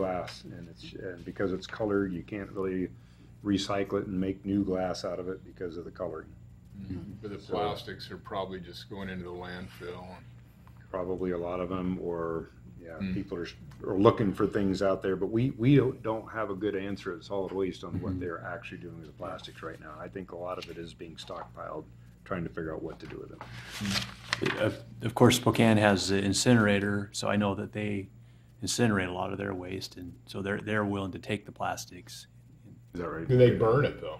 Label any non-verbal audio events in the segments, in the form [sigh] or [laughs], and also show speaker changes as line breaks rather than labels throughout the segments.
glass and it's, and because it's colored, you can't really recycle it and make new glass out of it because of the coloring.
But the
So-
plastics are probably just going into the landfill.
Probably a lot of them, or, yeah,
Hmm.
people are, s- are looking for things out there, but we, we don't, don't have a good answer at solid waste on what
Mhm.
they're actually doing with the plastics right now. I think a lot of it is being stockpiled, trying to figure out what to do with them.
Of of course, Spokane has the incinerator, so I know that they incinerate a lot of their waste, and so they're, they're willing to take the plastics.
Is that right?
Do they burn it though?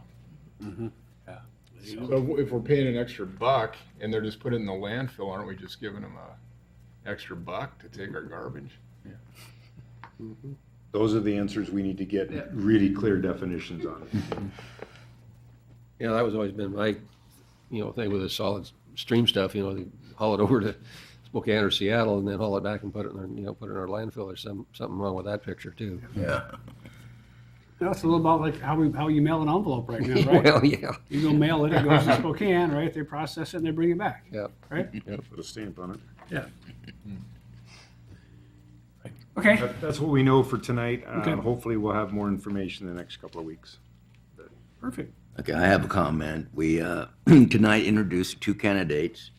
Yeah.
So if we're paying an extra buck and they're just putting it in the landfill, aren't we just giving them a extra buck to take our garbage?
Those are the answers we need to get really clear definitions on.
Yeah, that was always been my, you know, thing with the solid stream stuff, you know, they haul it [laughs] over to Spokane or Seattle and then haul it back and put it in, our- you know, put it in our landfill. There's some, something wrong with that picture too.
That's a little about like how we, how you mail an envelope
[laughs]
right now, right?
Well, yeah,
You go mail it, it goes to Spokane, right? They process it and they bring it back,
yeah.
right?
Put a stamp on it.
Okay,
That- That's what we know for tonight. Um,
Okay.
Hopefully, we'll have more information in the next couple of weeks.
perfect.
Okay, I have a comment. We uh, [clears throat] tonight introduced two candidates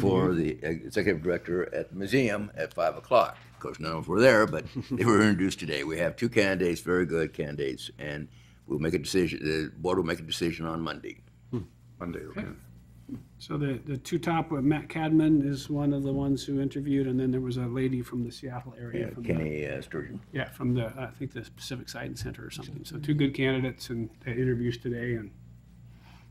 for
Interview.
the executive director at the museum at five o'clock. Of course, none of us were there, but they were introduced today. We have two candidates, very good candidates, and we'll make a decision, the board will make a decision on Monday.
Monday, okay?
So the, the two top, uh, Matt Cadman is one of the ones who interviewed, and then there was a lady from the Seattle area. from the-
Kenny uh, Sturgeon.
Yeah, from the, I think the Pacific Science Center or something. So two good candidates and they had interviews today and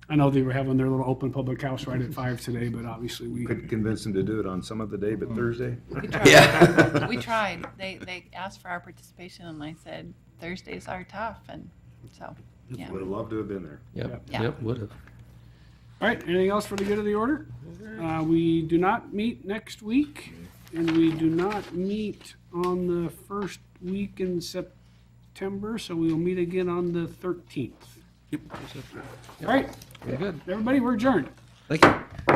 I know they were having their little open public house right at five today, but obviously we,
Could convince them to do it on some other day, but Thursday?
We tried.
Yeah.
We tried. They, they asked for our participation and I said, Thursdays are tough and so, yeah.
Would have loved to have been there.
Yep,
Yeah.
yep, would have.
all right, anything else for the good of the order? Uh, we do not meet next week and we do not meet on the first week in September, so we will meet again on the thirteenth. All right,
Very good.
everybody, we're adjourned.
Thank you.